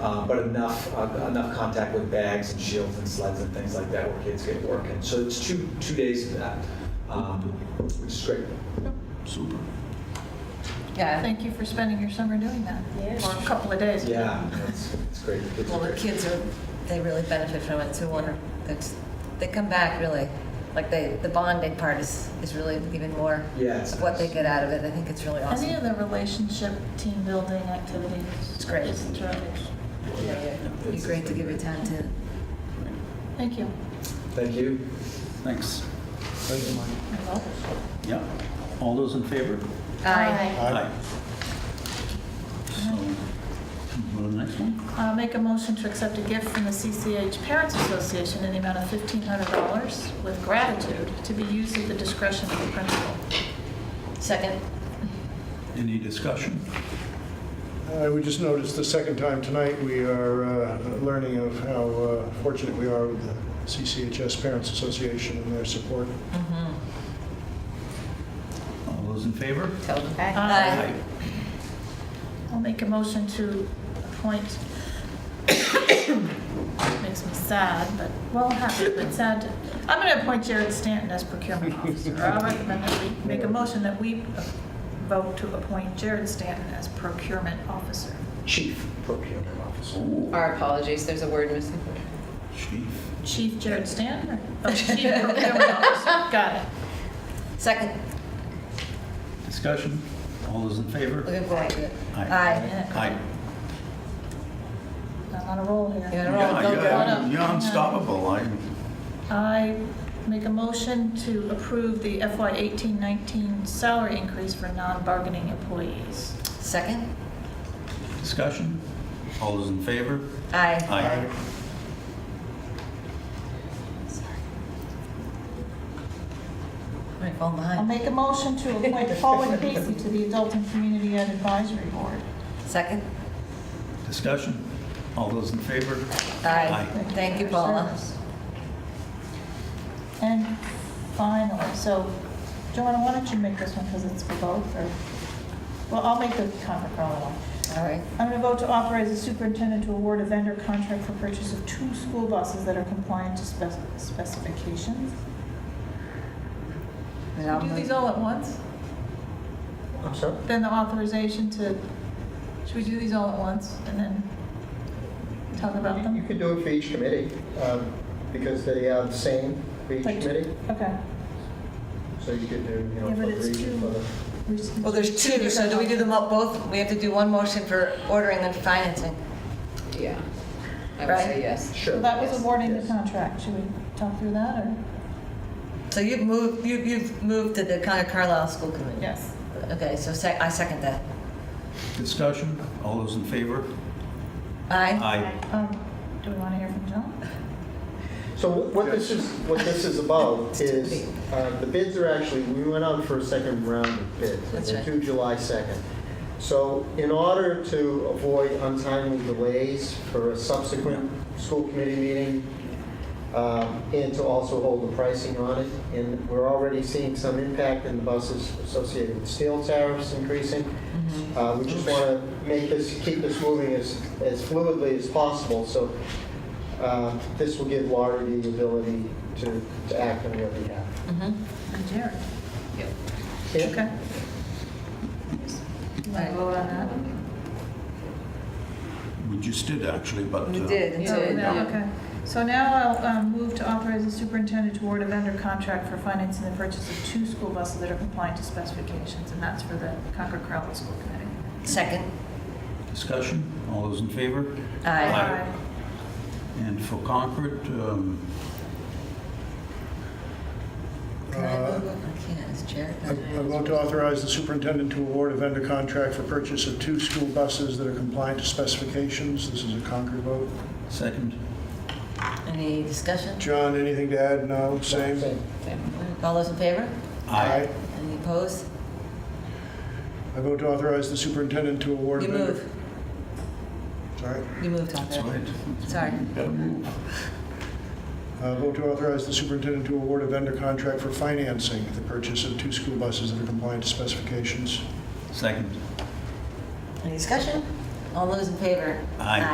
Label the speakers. Speaker 1: uh, but enough, uh, enough contact with bags and shields and sleds and things like that where kids get working. So it's two, two days of that, um, which is great.
Speaker 2: Super.
Speaker 3: Yeah,
Speaker 4: Thank you for spending your summer doing that,
Speaker 5: Yes.
Speaker 4: or a couple of days.
Speaker 1: Yeah, it's, it's great. The kids are
Speaker 3: Well, the
Speaker 1: great.
Speaker 3: kids are, they really benefit from it, so wonder, that's, they come back really, like they, the bonding part is, is really even more
Speaker 1: Yeah, it's
Speaker 3: of what they
Speaker 1: nice.
Speaker 3: get out of it, I think it's really awesome.
Speaker 4: Any of the relationship, team building activities?
Speaker 3: It's great.
Speaker 4: It's terrific.
Speaker 3: Yeah, yeah. It'd be
Speaker 1: It's-
Speaker 3: great to give your time to.
Speaker 4: Thank you.
Speaker 1: Thank you.
Speaker 2: Thanks.
Speaker 4: Hello.
Speaker 2: Yeah. All those in favor?
Speaker 3: Aye.
Speaker 2: Aye. So, go to the next one.
Speaker 4: Uh, Make a motion to accept a gift from the CCH Parents Association in the amount of $1,500 with gratitude to be used at the discretion of the principal.
Speaker 3: Second?
Speaker 2: Any discussion?
Speaker 6: I would Uh, just notice the second time tonight, we are uh, learning of how uh, fortunate we are with the CCHS Parents Association and their support.
Speaker 2: All those in favor?
Speaker 3: Tobin?
Speaker 4: Aye. I'll make a motion to appoint, makes me sad, but, well, happy, but sad. I'm going to appoint Jared Stanton as procurement officer. I recommend that we make a motion that we vote to appoint Jared Stanton as procurement officer.
Speaker 1: Chief Procurement Officer.
Speaker 2: Ooh,
Speaker 5: Our apologies, there's a word missing.
Speaker 2: Chief.
Speaker 4: Chief Jared Stanton? or- Oh, Chief procurement officer, got it.
Speaker 3: Second,
Speaker 2: Discussion? All those in favor?
Speaker 3: we're going to.
Speaker 2: Aye.
Speaker 3: Aye.
Speaker 2: Aye.
Speaker 4: I'm on a roll here.
Speaker 3: You're on a roll,
Speaker 2: Yeah,
Speaker 3: go,
Speaker 4: yeah.
Speaker 3: go.
Speaker 4: Hold
Speaker 2: yeah,
Speaker 4: on.
Speaker 2: You're unstoppable. I,
Speaker 4: I make a motion to approve the FY 18-19 salary increase for non-bargaining employees.
Speaker 3: Second?
Speaker 2: discussion? All those in favor?
Speaker 3: Aye.
Speaker 2: Aye.
Speaker 3: I'm falling
Speaker 4: I'll
Speaker 3: behind.
Speaker 4: make a motion to appoint Paula Casey to the Adult and Community Ed Advisory Board.
Speaker 3: Second?
Speaker 2: Discussion? All those in favor?
Speaker 3: Aye.
Speaker 4: Thank
Speaker 3: Thank you,
Speaker 4: you for your
Speaker 3: Paula.
Speaker 4: service. And finally, so Joanna, why don't you make this one because it's for both, or, well, I'll make the comment for all of them.
Speaker 3: All right.
Speaker 4: I'm going to vote to authorize the superintendent to award a vendor contract for purchase of two school buses that are compliant to spec- specifications.
Speaker 3: And I'll move-
Speaker 4: all at once?
Speaker 1: I'm sorry?
Speaker 4: Then the authorization to, should we do these all at once and then talk about
Speaker 7: You
Speaker 4: them?
Speaker 7: could do it for each committee, um, because they are the same for each
Speaker 4: Like-
Speaker 7: committee,
Speaker 4: Okay.
Speaker 7: so you could do, you know,
Speaker 4: Yeah, but
Speaker 7: for
Speaker 4: it's
Speaker 7: three,
Speaker 4: two.
Speaker 7: for
Speaker 3: Well, there's two, so do we do them all- both? We have to do one motion for ordering and financing.
Speaker 5: Yeah. I would
Speaker 3: Right.
Speaker 5: say yes.
Speaker 4: So
Speaker 7: Sure.
Speaker 4: that was awarding the
Speaker 7: Yes.
Speaker 4: contract. Should we talk through that or?
Speaker 3: So you've moved, you- you've moved to the County Carlisle School Committee?
Speaker 4: Yes.
Speaker 3: Okay, so sec- I second that.
Speaker 2: Discussion? All those in favor?
Speaker 3: Aye.
Speaker 2: Aye.
Speaker 4: Um, do we want to hear from John?
Speaker 7: So what this is, what this is about is, uh, the bids are actually, we went out for a second round of bids.
Speaker 3: That's right.
Speaker 7: Due July 2nd. So in order to avoid untimely delays for a subsequent school committee meeting, um, and to also hold the pricing on it, and we're already seeing some impact in the buses associated with steel tariffs increasing. Uh, We just want to make this, keep this moving as as fluidly as possible, so uh, this will give Laurie the ability to to act on your behalf.
Speaker 3: Mhm.
Speaker 4: And Jared.
Speaker 7: Okay?
Speaker 4: You want to vote on that?
Speaker 2: We just did actually, but.
Speaker 3: We
Speaker 2: uh,
Speaker 3: did.
Speaker 5: You
Speaker 4: Oh,
Speaker 5: did,
Speaker 4: no,
Speaker 5: yeah.
Speaker 4: Okay. So now I'll um, move to authorize the superintendent to award a vendor contract for financing the purchase of two school buses that are compliant to specifications, and that's for the Concord Crowell School Committee.
Speaker 3: Second.
Speaker 2: Discussion? All those in favor?
Speaker 3: Aye.
Speaker 2: Aye. And for Concord, um,
Speaker 3: Can I
Speaker 6: Uh,
Speaker 3: move? I can't, it's Jared.
Speaker 6: I I vote to authorize the superintendent to award a vendor contract for purchase of two school buses that are compliant to specifications. This is a Concord vote.
Speaker 2: second.
Speaker 3: Any discussion?
Speaker 6: John, anything to add? No, same?
Speaker 3: All those in favor?
Speaker 2: Aye.
Speaker 3: Any opposed?
Speaker 6: I vote to authorize the superintendent to award.
Speaker 3: You
Speaker 6: a vendor-
Speaker 3: move,
Speaker 6: Sorry.
Speaker 3: you move, Tom.
Speaker 2: That's right.
Speaker 3: Sorry.
Speaker 2: Gotta move.
Speaker 6: Uh, Vote to authorize the superintendent to award a vendor contract for financing the purchase of two school buses that are compliant to specifications.
Speaker 2: Second.
Speaker 3: Any discussion? All those in favor?
Speaker 2: Aye.